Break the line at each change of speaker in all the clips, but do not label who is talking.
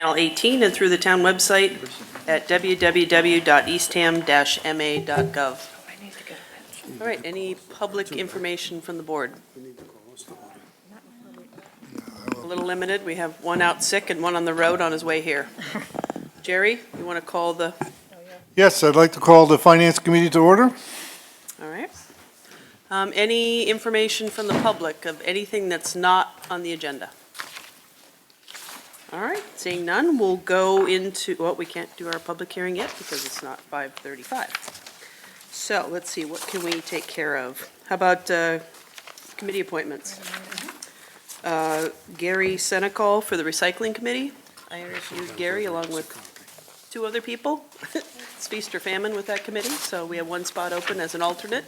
Channel 18 and through the town website at www.eastham-ma.gov. All right, any public information from the board? A little limited, we have one out sick and one on the road on his way here. Jerry, you want to call the,
Yes, I'd like to call the Finance Committee to order.
all right. Um, Any information from the public of anything that's not on the agenda? All right, seeing none, we'll go into, well, we can't do our public hearing yet because it's not 5:35. So let's see, what can we take care of? How about uh, committee appointments? Uh, Gary Senecal for the Recycling Committee. I interviewed Gary along with two other people. It's feast or famine with that committee, so we have one spot open as an alternate.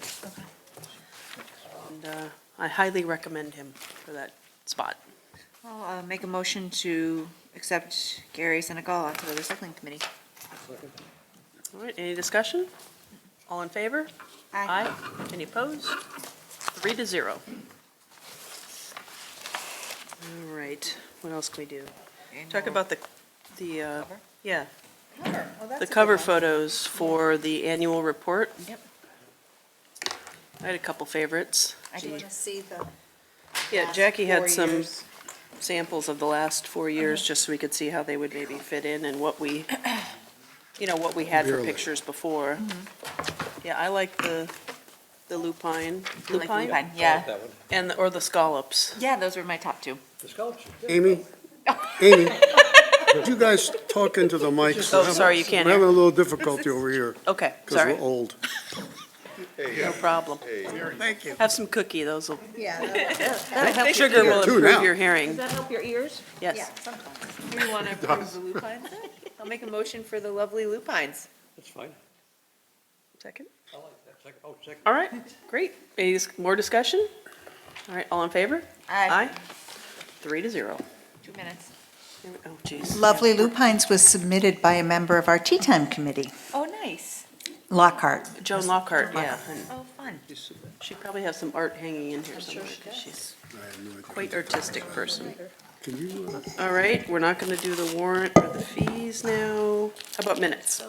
And uh, I highly recommend him for that spot.
I'll uh, make a motion to accept Gary Senegal onto the recycling committee.
All right, any discussion? All in favor? Any opposed? Three to zero. All right, what else can we do? Talk about the, the, uh,
Cover?
yeah, the
the
cover photos for the annual report.
Yep.
I had a couple favorites.
I
Do you want
did.
to see the?
Yeah,
last
Jackie
four
had some
years?
samples of the last four years, just so we could see how they would maybe fit in and what we, you know, what we had for
Really?
pictures before. Yeah, I like the, Mm-hmm. the lupine,
I like
lupine,
Lupine, yeah.
and, the- or the scallops.
Yeah, those were my top two.
Amy, Amy, would you guys talk into the mic?
Oh, sorry, you can't
I'm
hear.
having a little difficulty over here,
Okay,
because
sorry,
we're old.
no problem.
Thank you.
Have some cookie, those will,
Yeah. that- that- that helps your
sugar
ears.
will
Two
improve
now.
your hearing,
That help your ears?
yes.
Yeah, sometimes.
Do you want to approve the lupines? I'll make a motion for the lovely lupines.
That's fine.
Second?
I like that. Second, oh, second.
All right, great. Any dis- more discussion? All right, all in favor?
Aye.
Three to zero.
Two minutes.
Here we- Oh, geez.
Lovely Lupines was submitted by a member of our Tea Time Committee,
Oh, nice.
Lockhart.
Joan Lockhart, yeah. and
Oh, fun.
She probably has some art hanging in here somewhere, because she's quite artistic person.
Can you, uh,
All right, we're not gonna do the warrant or the fees now. How about minutes?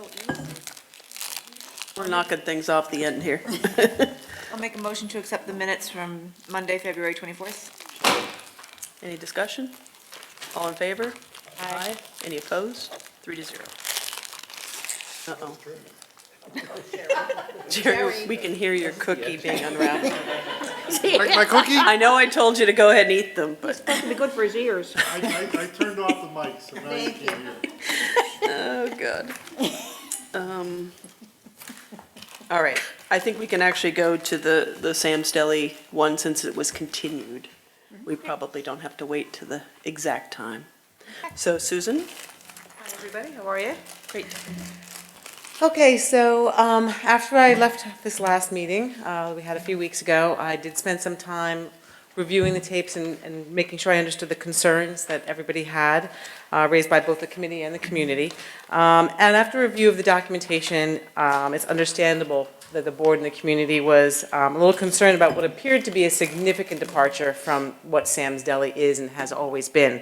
We're knocking things off the end here.
I'll make a motion to accept the minutes from Monday, February 24th.
Any discussion? All in favor? Aye. Any opposed? Three to zero. Uh-oh. Jerry, we can hear your cookie being unwrapped.
like my cookie?
I know I told you to go ahead and eat them, but.
I, I, I turned off the mic, so now you
Thank
can hear.
Oh, good. Um, All right, I think we can actually go to the, the Sam's Deli one since it was continued. We probably don't have to wait to the exact time. So Susan?
Hi, everybody. How are you?
Great.
Okay, so um, after I left this last meeting, uh, we had a few weeks ago, I did spend some time reviewing the tapes and and making sure I understood the concerns that everybody had uh, raised by both the committee and the community. Um, And after review of the documentation, um, it's understandable that the board and the community was um, a little concerned about what appeared to be a significant departure from what Sam's Deli is and has always been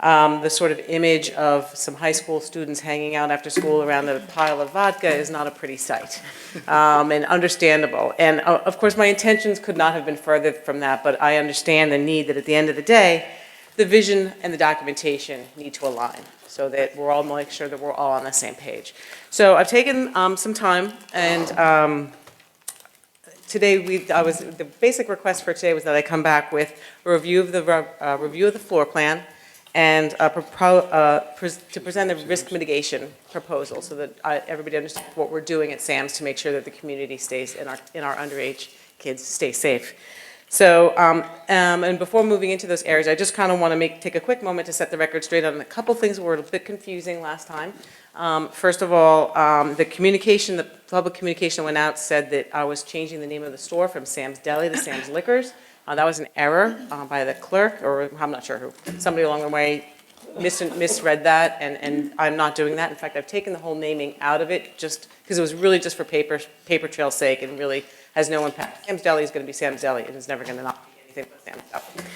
um, the sort of image of some high school students hanging out after school around a pile of vodka is not a pretty sight, um, and understandable. And uh, of course, my intentions could not have been further from that, but I understand the need that at the end of the day, the vision and the documentation need to align so that we're all make sure that we're all on the same page. So I've taken um, some time and. Um, today, we, I was, the basic request for today was that I come back with a review of the, re- uh, review of the floor plan and a propo- uh, pres- to present the risk mitigation proposal so that uh, everybody understands what we're doing at SAMS to make sure that the community stays and our, and our underage kids stay safe. So, um, um, and before moving into those areas, I just kind of want to make, take a quick moment to set the record straight on a couple things that were a bit confusing last time. Um, First of all, um, the communication, the public communication went out, said that I was changing the name of the store from Sam's Deli to Sam's Liquors. Uh, That was an error uh, by the clerk, or I'm not sure who, somebody along the way mis- misread that, and, and I'm not doing that. In fact, I've taken the whole naming out of it, just, because it was really just for paper, paper trail's sake, and really has no impact. Sam's Deli is gonna be Sam's Deli, and it's never gonna not be anything but Sam's Deli.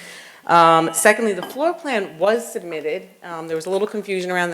Um, Secondly, the floor plan was submitted. Um, There was a little confusion around that.